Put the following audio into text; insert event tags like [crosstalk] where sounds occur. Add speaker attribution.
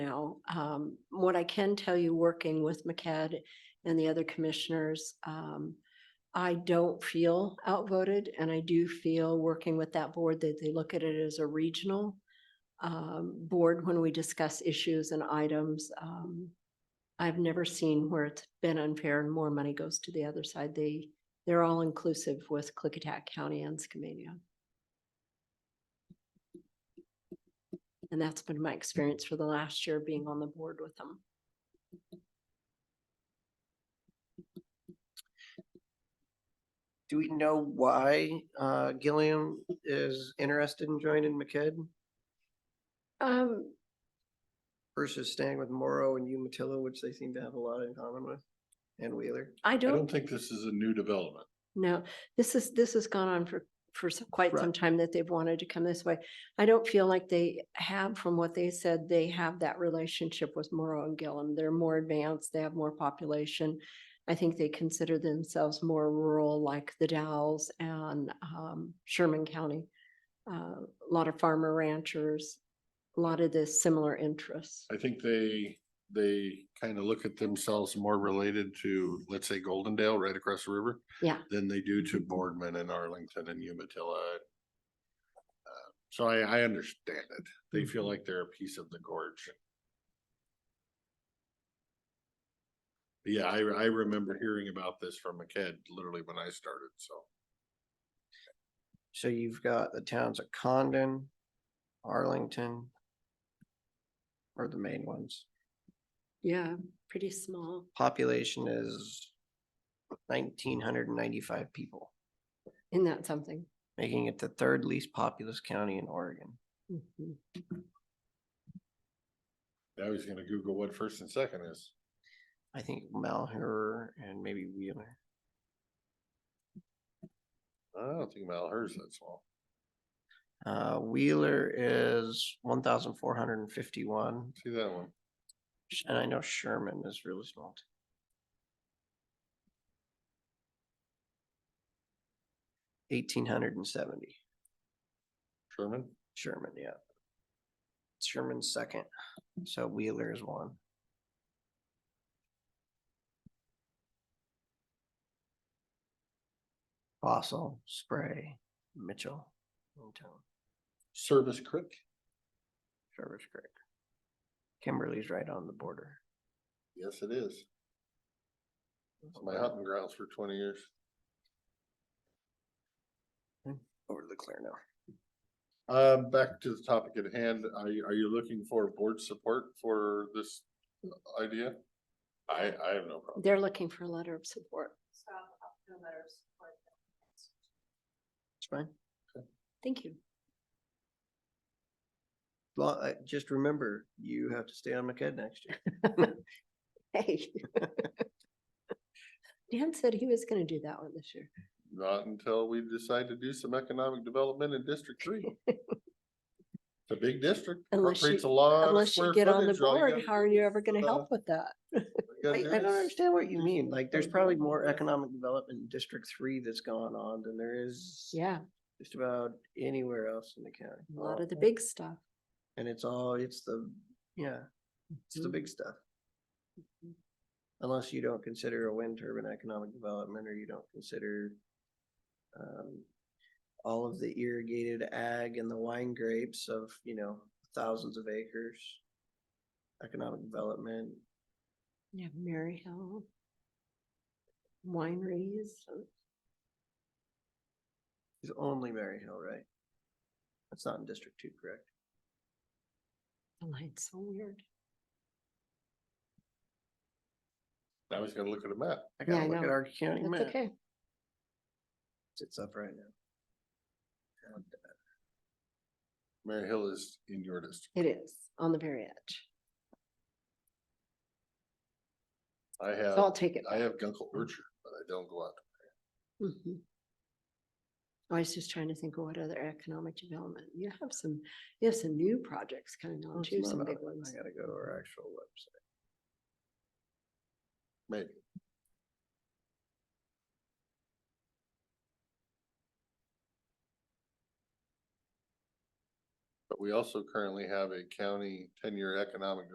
Speaker 1: now. Um, what I can tell you, working with MCAD and the other commissioners, um, I don't feel outvoted and I do feel working with that board that they look at it as a regional um, board when we discuss issues and items. Um, I've never seen where it's been unfair and more money goes to the other side. They, they're all inclusive with Clickatack County and Skamania. And that's been my experience for the last year being on the board with them.
Speaker 2: Do we know why uh, Gilliam is interested in joining McKed
Speaker 1: Um,
Speaker 2: versus staying with Morrow and Umatilla, which they seem to have a lot in common with? And Wheeler?
Speaker 1: I
Speaker 3: I
Speaker 1: don't
Speaker 3: don't think this is a new development.
Speaker 1: No, this is, this has gone on for, for s- quite
Speaker 2: Right.
Speaker 1: some time that they've wanted to come this way. I don't feel like they have, from what they said, they have that relationship with Morrow and Gillum. They're more advanced, they have more population. I think they consider themselves more rural, like the Dowells and um, Sherman County. Uh, A lot of farmer ranchers, a lot of the similar interests.
Speaker 3: I think they, they kind of look at themselves more related to, let's say, Goldendale right across the river.
Speaker 1: Yeah.
Speaker 3: Than they do to Boardman and Arlington and Umatilla. Uh, So I, I understand it. They feel
Speaker 1: Mm-hmm.
Speaker 3: like they're a piece of the gorge. Yeah, I, I remember hearing about this from a kid literally when I started, so.
Speaker 2: So you've got the towns of Condon, Arlington are the main ones.
Speaker 1: Yeah, pretty small.
Speaker 2: Population is nineteen hundred and ninety-five people,
Speaker 1: Isn't that something?
Speaker 2: making it the third least populous county in Oregon.
Speaker 1: Mhm.
Speaker 3: I was gonna Google what first and second is.
Speaker 2: I think Malheur and maybe Wheeler.
Speaker 3: I don't think Malheurs that small.
Speaker 2: Uh, Wheeler is one thousand four hundred and fifty-one,
Speaker 3: See that one?
Speaker 2: sh- and I know Sherman is really small. too. Eighteen hundred and seventy,
Speaker 3: Sherman?
Speaker 2: Sherman, yeah. Sherman's second, so Wheeler is one. Fossil, Spray, Mitchell, Town.
Speaker 3: Service Creek?
Speaker 2: Traverse Creek. Kimberly's right on the border.
Speaker 3: Yes, it is. It's My hunting grounds for twenty years.
Speaker 2: Over to the Clear now.
Speaker 3: Uh, back to the topic at hand, are you, are you looking for board support for this idea? I, I have no problem.
Speaker 1: They're looking for a letter of support.
Speaker 2: It's fine.
Speaker 1: Thank you.
Speaker 2: Well, I, just remember, you have to stay on McCad next year.
Speaker 1: Hey. [laughs] Dan said he was gonna do that one this year.
Speaker 3: Not until we decide to do some economic development in District Three. It's a big district.
Speaker 1: Unless you-
Speaker 3: incorporates a lot of
Speaker 1: Unless you
Speaker 3: square
Speaker 1: get on the
Speaker 3: footage, all you
Speaker 1: board,
Speaker 3: gotta
Speaker 1: how are
Speaker 3: do
Speaker 1: you
Speaker 3: is,
Speaker 1: ever gonna
Speaker 3: uh,
Speaker 1: help with that? [laughs]
Speaker 3: you
Speaker 2: I,
Speaker 3: gotta
Speaker 2: I
Speaker 3: do
Speaker 2: don't
Speaker 3: is-
Speaker 2: understand what you mean. Like, there's probably more economic development in District Three that's gone on than there is
Speaker 1: Yeah,
Speaker 2: just about anywhere else in the county.
Speaker 1: a lot of the big stuff.
Speaker 2: And it's all, it's the, yeah, it's the
Speaker 1: Mhm.
Speaker 2: big stuff.
Speaker 1: Mhm.
Speaker 2: Unless you don't consider a wind turbine economic development or you don't consider um, all of the irrigated ag and the wine grapes of, you know, thousands of acres. Economic development,
Speaker 1: You have Mary Hill. Wineries.
Speaker 2: is only Mary Hill, right? That's not in District Two, correct?
Speaker 1: The line's so weird.
Speaker 3: I was gonna look at a map.
Speaker 2: I
Speaker 1: Yeah, I
Speaker 2: gotta look
Speaker 1: know.
Speaker 2: at our county
Speaker 1: That's
Speaker 2: map.
Speaker 1: okay.
Speaker 2: It's up right now. And
Speaker 3: Mary Hill is in your district.
Speaker 1: It is on the very edge.
Speaker 3: I
Speaker 1: So I'll
Speaker 3: have,
Speaker 1: take it.
Speaker 3: I
Speaker 1: back.
Speaker 3: have Gunkle Orchard, but I don't go out.
Speaker 1: Mhm.
Speaker 2: Mm-hmm.
Speaker 1: I was just trying to think of what other economic development. You have some, you have some new projects coming on
Speaker 2: Oh, it's
Speaker 1: too,
Speaker 2: not
Speaker 1: some
Speaker 2: on
Speaker 1: big
Speaker 2: it. I
Speaker 1: ones.
Speaker 2: gotta go to our actual website.
Speaker 3: Maybe. But we also currently have a county ten-year economic